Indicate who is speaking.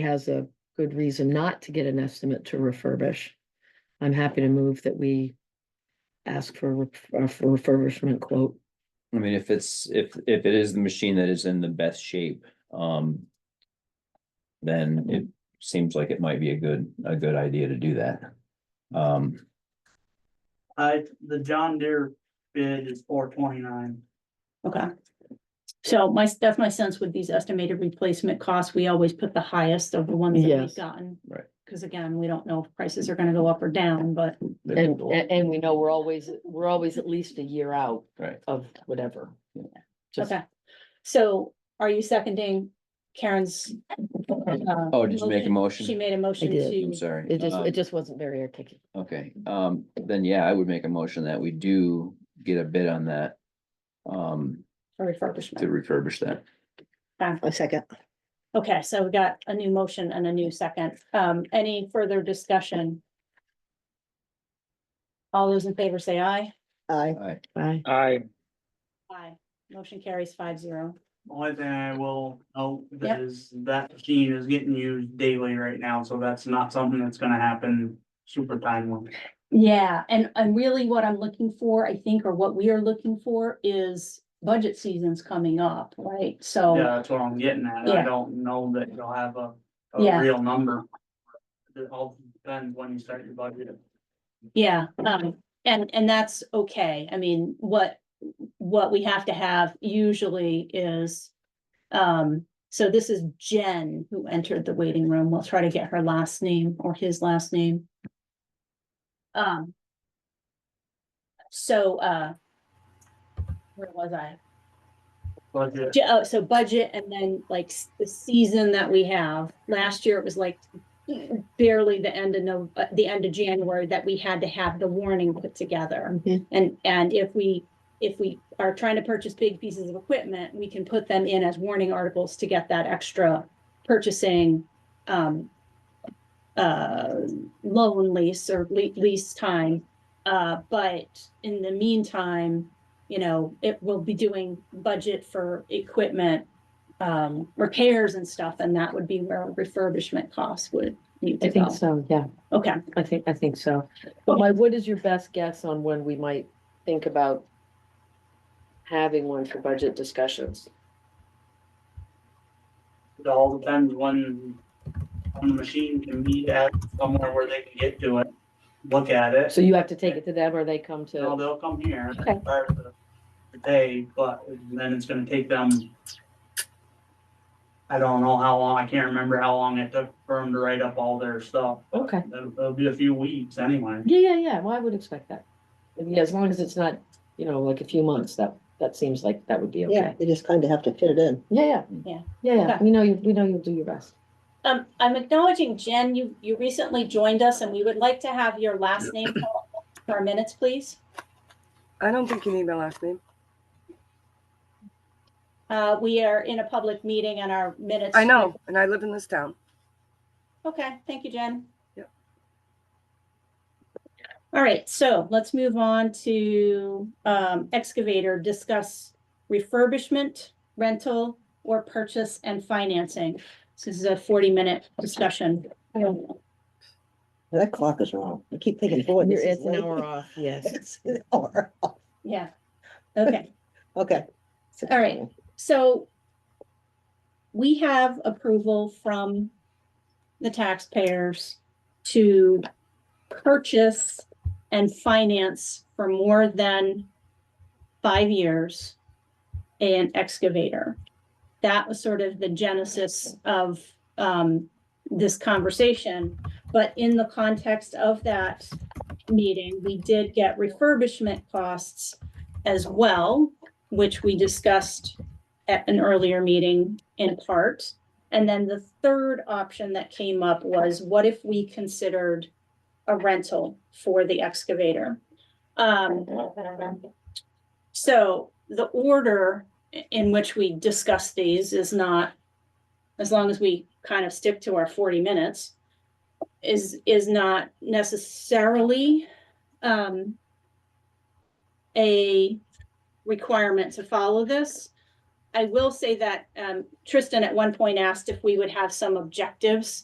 Speaker 1: has a good reason not to get an estimate to refurbish, I'm happy to move that we ask for a ref- uh, for refurbishment quote.
Speaker 2: I mean, if it's, if, if it is the machine that is in the best shape, um. Then it seems like it might be a good, a good idea to do that. Um,
Speaker 3: I, Uh, the John Deere bid is four twenty-nine.
Speaker 4: Okay. So my, that's my sense with these estimated replacement costs, we always put the highest of the ones that
Speaker 1: Yes.
Speaker 4: we've gotten.
Speaker 2: Right.
Speaker 4: Cause again, we don't know if prices are gonna go up or down, but
Speaker 1: And, and and we know we're always, we're always at least a year out
Speaker 2: Right.
Speaker 1: of whatever. Just-
Speaker 4: okay. So are you seconding Karen's? uh,
Speaker 2: Oh, did you make a
Speaker 4: She
Speaker 2: motion?
Speaker 4: made a motion
Speaker 1: I did.
Speaker 2: I'm
Speaker 4: to,
Speaker 2: sorry.
Speaker 1: It just,
Speaker 2: Um,
Speaker 1: it just wasn't very articulate.
Speaker 2: Okay, um, then yeah, I would make a motion that we do get a bid on that. Um,
Speaker 4: for
Speaker 2: to
Speaker 4: refurbishment.
Speaker 2: refurbish that.
Speaker 5: A second.
Speaker 4: Okay, so we got a new motion and a new second. Um, any further discussion? All those in favor say aye.
Speaker 5: Aye.
Speaker 2: All right,
Speaker 1: Bye.
Speaker 6: I,
Speaker 4: Aye. Motion carries five zero.
Speaker 3: Only thing I will note
Speaker 4: Yeah.
Speaker 3: is that machine is getting used daily right now, so that's not something that's gonna happen super timely.
Speaker 4: Yeah, and, and really what I'm looking for, I think, or what we are looking for is budget season's coming up, right?
Speaker 3: Yeah,
Speaker 4: So,
Speaker 3: that's what I'm getting at. I
Speaker 4: Oh. Yeah.
Speaker 3: don't know that you'll have a,
Speaker 4: Yeah.
Speaker 3: a real number. It all depends when you start your budget.
Speaker 4: yeah, um, and, and that's okay. I mean, what, what we have to have usually is, um, so this is Jen who entered the waiting room. We'll try to get her last name or his last name. Um. So, uh, where was I?
Speaker 3: Budget,
Speaker 4: Ju- Oh, so budget and then like s- the season that we have. Last year it was like barely the end of no, uh, the end of January that we had to have the warning put together.
Speaker 5: Mhm.
Speaker 4: And, and if we, if we are trying to purchase big pieces of equipment, we can put them in as warning articles to get that extra purchasing, um, uh, loan lease or le- lease time. Uh, but in the meantime, you know, it will be doing budget for equipment, um, repairs and stuff, and that would be where refurbishment costs would need
Speaker 1: I
Speaker 4: to go.
Speaker 1: think so, yeah.
Speaker 4: Okay,
Speaker 1: I think, I think so. But my, what is your best guess on when we might think about having one for budget discussions?
Speaker 3: it all depends when, when the machine can be at somewhere where they can get to it, look at it.
Speaker 1: So you have to take it to them or they come
Speaker 3: No,
Speaker 1: to,
Speaker 3: they'll come here.
Speaker 4: Okay.
Speaker 3: Start the the day, but then it's gonna take them. I don't know how long, I can't remember how long it took for them to write up all their stuff.
Speaker 1: okay.
Speaker 3: It'll, it'll be a few weeks anyway.
Speaker 1: Yeah, yeah, yeah. Well, I would expect that. And Yeah, as long as it's not, you know, like a few months, that, that seems like that would be
Speaker 5: Yeah,
Speaker 1: okay.
Speaker 5: you just kind of have to fit it in.
Speaker 1: Yeah, yeah.
Speaker 4: Yeah.
Speaker 1: Yeah, yeah.
Speaker 4: Okay.
Speaker 1: We know you, we know you'll do your best.
Speaker 4: um, I'm acknowledging Jen, you, you recently joined us and we would like to have your last name called for our minutes, please.
Speaker 7: I don't think you need my last name.
Speaker 4: Uh, we are in a public meeting and our minutes.
Speaker 7: I know, and I live in this town.
Speaker 4: Okay, thank you, Jen.
Speaker 7: Yep.
Speaker 4: All right, so let's move on to um, excavator, discuss refurbishment, rental, or purchase and financing. This is a forty-minute discussion.
Speaker 5: That clock is wrong. I keep thinking, boy, this is late.
Speaker 1: off, yes.
Speaker 5: It's an hour.
Speaker 4: Yeah, okay.
Speaker 5: Okay.
Speaker 4: All right. So we have approval from the taxpayers to purchase and finance for more than five years an excavator. That was sort of the genesis of um, this conversation. But in the context of that meeting, we did get refurbishment costs as well which we discussed at an earlier meeting in part. And then the third option that came up was what if we considered a rental for the excavator? Um, so the order i- in which we discuss these is not, as long as we kind of stick to our forty minutes, is, is not necessarily, um, a requirement to follow this. I will say that, um, Tristan at one point asked if we would have some objectives